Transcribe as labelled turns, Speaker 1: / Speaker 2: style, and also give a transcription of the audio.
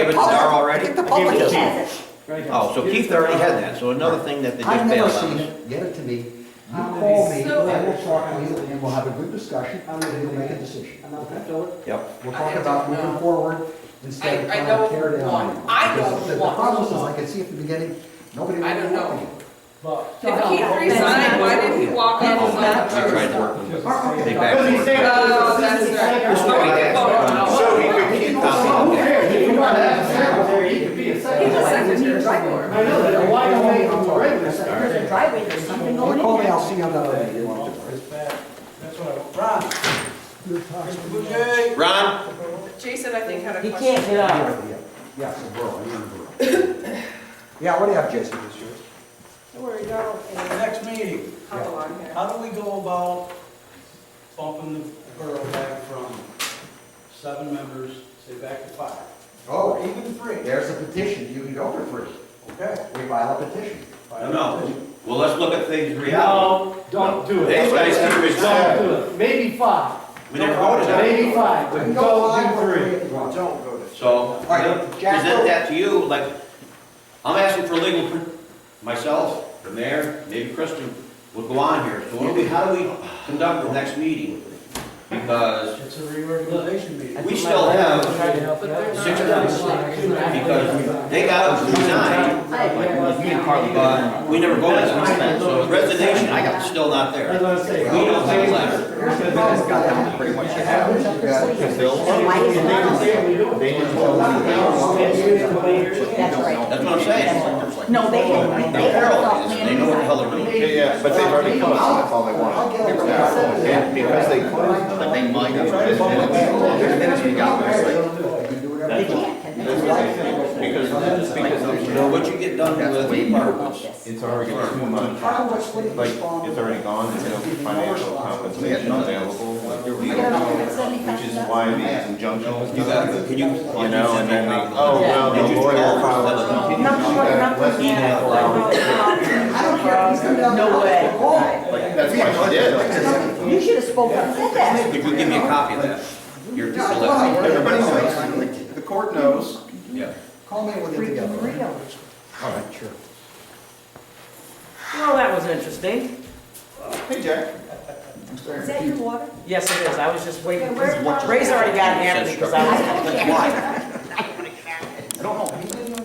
Speaker 1: it's there already?
Speaker 2: Get the
Speaker 1: I gave
Speaker 2: public
Speaker 1: it
Speaker 2: has
Speaker 1: to
Speaker 2: it.
Speaker 1: Oh, so Keith already had that, so another thing that they
Speaker 2: I've
Speaker 1: just
Speaker 2: never
Speaker 1: bailed
Speaker 2: seen
Speaker 1: on. us.
Speaker 2: it, get it to me. You
Speaker 3: Um,
Speaker 2: call me, I will talk to you, and we'll have a good discussion,
Speaker 3: Um,
Speaker 2: and we'll make a decision. Okay?
Speaker 1: Yep,
Speaker 2: We're
Speaker 3: I
Speaker 2: talking
Speaker 3: don't
Speaker 2: about
Speaker 3: know.
Speaker 2: moving forward instead of
Speaker 3: I- I
Speaker 2: trying to
Speaker 3: don't
Speaker 2: tear down.
Speaker 3: want- I
Speaker 2: Because
Speaker 3: don't
Speaker 2: the-
Speaker 3: want-
Speaker 2: The problem is, I could see at the beginning, nobody
Speaker 3: I
Speaker 2: wanted
Speaker 3: don't
Speaker 2: to
Speaker 3: know.
Speaker 2: work with you.
Speaker 3: If
Speaker 4: Oh,
Speaker 3: Keith resigned, why did he walk out on the
Speaker 1: I Oh, tried to
Speaker 3: Thursday?
Speaker 1: work with them.
Speaker 2: Oh,
Speaker 1: They
Speaker 2: okay.
Speaker 1: backed
Speaker 4: Because he
Speaker 1: away.
Speaker 4: said-
Speaker 3: No, that's right.
Speaker 4: This
Speaker 3: No, we
Speaker 1: way.
Speaker 3: can vote on it.
Speaker 4: So he could
Speaker 2: If
Speaker 4: keep
Speaker 2: you
Speaker 4: the.
Speaker 2: don't know,
Speaker 4: Who
Speaker 2: who cares?
Speaker 4: cares? If you want to have a secretary, he could be a
Speaker 3: He just
Speaker 4: secretary.
Speaker 3: sent it to the driveway.
Speaker 4: I know, that, why don't they, on the regular
Speaker 5: There's a
Speaker 4: secretary?
Speaker 5: driveway, there's something
Speaker 2: You
Speaker 5: going in
Speaker 2: call me,
Speaker 5: there.
Speaker 2: I'll see you another day. You want to-
Speaker 6: That's what I want. Ron, Mr. Boucher,
Speaker 1: Ron?
Speaker 3: Jason, I think, had a
Speaker 5: He
Speaker 3: question.
Speaker 5: can't get out.
Speaker 2: Yeah, yeah, it's a borough, I live in a borough. Yeah, what do you have, Jason?
Speaker 3: Don't worry, you're
Speaker 6: the
Speaker 3: okay.
Speaker 6: next meeting,
Speaker 3: Come along here.
Speaker 6: how do we go about bumping the borough back from seven members, say back to five? Or
Speaker 2: Oh,
Speaker 6: even three?
Speaker 2: there's a petition, you can go for free.
Speaker 6: Okay.
Speaker 2: We file a petition.
Speaker 1: No, no. Well, let's look at things in reality.
Speaker 4: No, don't do it.
Speaker 1: These guys keep his
Speaker 4: Don't do it. Maybe five.
Speaker 1: We never voted on it.
Speaker 4: Maybe five, but don't do three.
Speaker 2: Don't go to.
Speaker 1: So,
Speaker 2: All right, Jack,
Speaker 1: present
Speaker 2: go.
Speaker 1: that to you, like, I'm asking for legal, pr- myself, the mayor, maybe Kristen, will go on here. So what do we, how do we conduct the next meeting? Because
Speaker 6: It's a reorganization meeting.
Speaker 1: we still have, Six because they got us resigned, like, me and Carly, but we never voted on that. So resignation, I got, still not there.
Speaker 4: That's what I'm saying.
Speaker 1: We don't have a letter.
Speaker 2: Here's the problem, guys.
Speaker 7: Pretty much you
Speaker 2: Yeah,
Speaker 7: have.
Speaker 2: we took this lead.
Speaker 5: And why is it not?
Speaker 7: They didn't tell us.
Speaker 5: That's right.
Speaker 1: That's what I'm saying.
Speaker 5: No, they didn't,
Speaker 1: Now
Speaker 5: they had
Speaker 1: Carol
Speaker 5: all
Speaker 1: is, they know what the hell they're doing.
Speaker 7: Yeah, yeah, but they've already come up, that's all they want. They were back. And because they, but they might have, this minutes, minutes we got, it's like,
Speaker 2: You do whatever
Speaker 5: They
Speaker 2: you want.
Speaker 5: can't.
Speaker 7: that's what they think. Because, because there's
Speaker 1: You know,
Speaker 7: no,
Speaker 1: what you get done
Speaker 7: that's
Speaker 1: with
Speaker 7: way
Speaker 1: the
Speaker 7: more.
Speaker 1: apartments,
Speaker 7: It's already too much,
Speaker 2: How much would it
Speaker 7: like,
Speaker 2: respond?
Speaker 7: it's already gone, there's no financial compensation available, like, there was
Speaker 5: You don't know if
Speaker 7: no-
Speaker 5: it's seventy-five
Speaker 7: which is
Speaker 5: thousand.
Speaker 7: why these injunctions.
Speaker 1: you got, can you?
Speaker 7: You know, and then they, oh, well, the lawyer filed.
Speaker 5: Nothing, nothing,
Speaker 2: I don't care, if he's coming down.
Speaker 5: No way.
Speaker 2: Call.
Speaker 7: That's what she did, like,
Speaker 5: You should have spoken and said that.
Speaker 1: Could you give me a copy of that? Your
Speaker 2: Yeah, I
Speaker 1: letter,
Speaker 2: will.
Speaker 7: everybody knows, the court knows.
Speaker 1: yeah.
Speaker 2: Call me when you're
Speaker 5: Freaking
Speaker 2: together.
Speaker 5: real.
Speaker 2: All right, sure.
Speaker 8: Well, that was interesting.
Speaker 7: Hey, Jack.
Speaker 5: Is that your water?
Speaker 8: Yes, it is. I was just waiting.
Speaker 5: Yeah, where-
Speaker 8: Ray's already gotten after me because I was.
Speaker 5: I don't care.